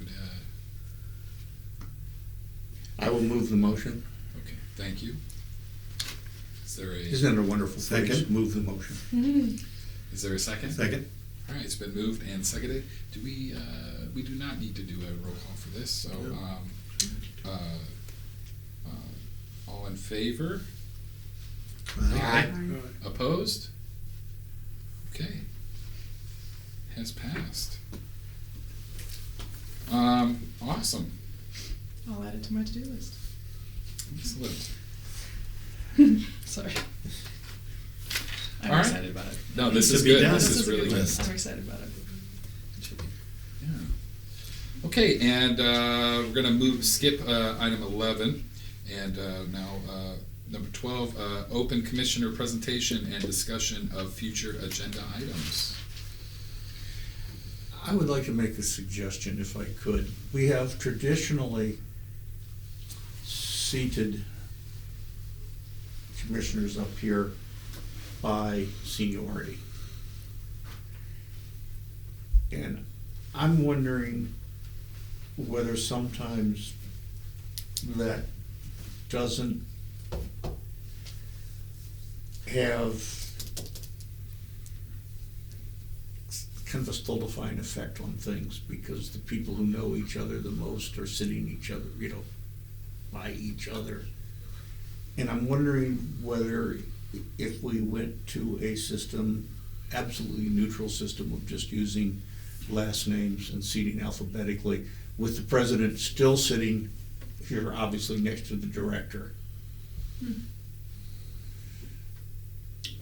uh, I will move the motion. Okay, thank you. Is there a, Isn't it a wonderful phrase? Second. Move the motion. is there a second? Second? All right, it's been moved and seconded. Do we, uh, we do not need to do a roll call for this, so, No. um, uh, uh, all in favor? Aye. Opposed? Okay. Has passed. Um, awesome. I'll add it to my to-do list. Excellent. Sorry. I'm All right. excited about it. No, this To is be good. done. This This is a really good good. list. I'm excited about it. Yeah. Okay, and uh, we're gonna move, skip uh, item eleven, and uh, now uh, number twelve, uh, open commissioner presentation and discussion of future agenda items. I would like to make a suggestion if I could. We have traditionally seated commissioners up here by seniority. And I'm wondering whether sometimes that doesn't have kind of a stultifying effect on things because the people who know each other the most are sitting each other, you know, by each other. And I'm wondering whether if we went to a system, absolutely neutral system of just using last names and seating alphabetically, with the president still sitting here, obviously next to the director.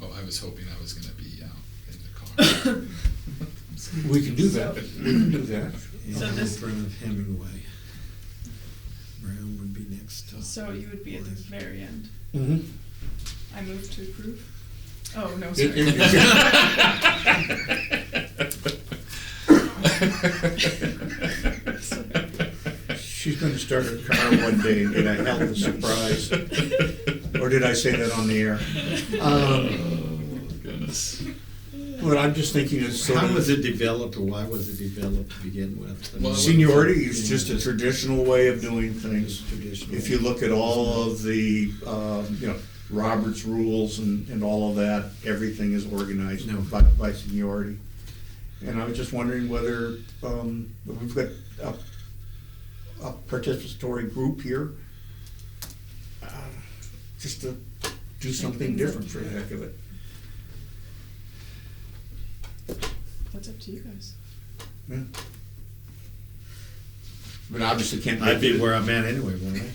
Oh, I was hoping I was gonna be out in the car. We can do that. We can do that. So In this- front of Hemingway. Brown would be next to. So you would be at the very end. Mhm. I move to approve? Oh, no, sorry. It- it- She's going to start her car one day and get a hell of a surprise. Or did I say that on the air? Um, Goodness. What I'm just thinking is sort How of was it developed, or why was it developed to begin with? I mean, Well, seniority is Yeah, just a traditional way of doing things. just Traditional. If you look at all of the, um, you know, Robert's rules and, and all of that, everything is organized No. by, by seniority. And I was just wondering whether, um, we've got a, a participatory group here. uh, Just to do something things up. different for the heck of it. That's up to you guys. Yeah. But obviously can't. I'd be make- where I'm at anyway, wouldn't I?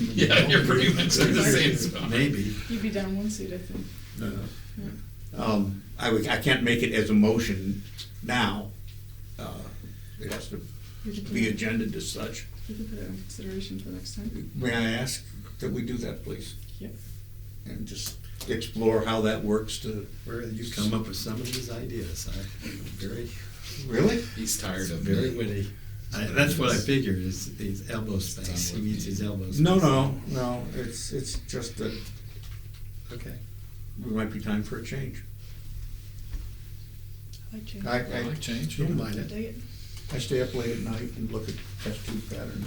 Yeah, you're pretty much in the same spot. Maybe. You'd be down one seat, I think. Uh, Um, I, would- I can't make it as a motion now. Uh, It has to You could put be it- agendaed as such. You could put it in consideration for next time. May I ask that we do that, please? Yep. And just explore how that works to. Where you come up with some of these ideas, I, very, Really? He's tired of very me. witty. I, that's what I figured, is these elbow space, he needs his elbow space. No, no, no, it's, it's just that Okay. it might be time for a change. I like change. I, I I, like change. Don't mind it. Dig it. I stay up late at night and look at test tube patterns.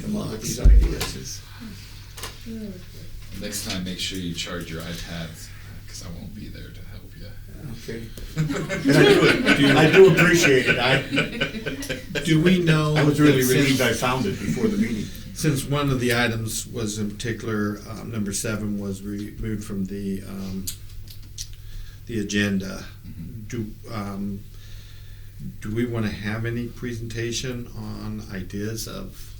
Come up with these ideas. Ugh. Next time, make sure you charge your iPads because I won't be there to help you. Okay. I do appreciate it. I, Do we know? I was really that since- relieved I found it before the meeting. Since one of the items was in particular, um, number seven was removed from the, um, the agenda, Mm-hmm. do, um, do we want to have any presentation on ideas of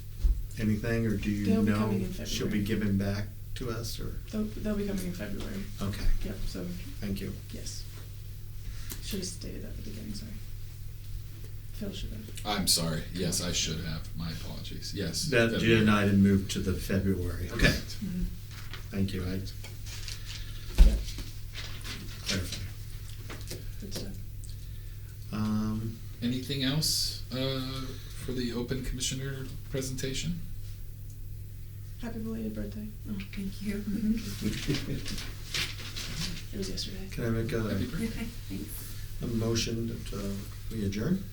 anything, or do you They'll be know coming in she'll be February. given back to us, or? They'll, they'll be coming in February. Okay, Yep, so, thank you. yes. Should have stated that at the beginning, sorry. Phil should have. I'm sorry. Yes, I should have. My apologies. Yes. That February. agenda item moved to the February. Okay, Correct. thank you, I Yep, clarify. good stuff. Um, Anything else uh, for the open commissioner presentation? Happy belated birthday. Oh, thank you. Mm-hmm. It was yesterday. can I make a, Happy birthday. Okay, thanks. a motion that, uh, we adjourn?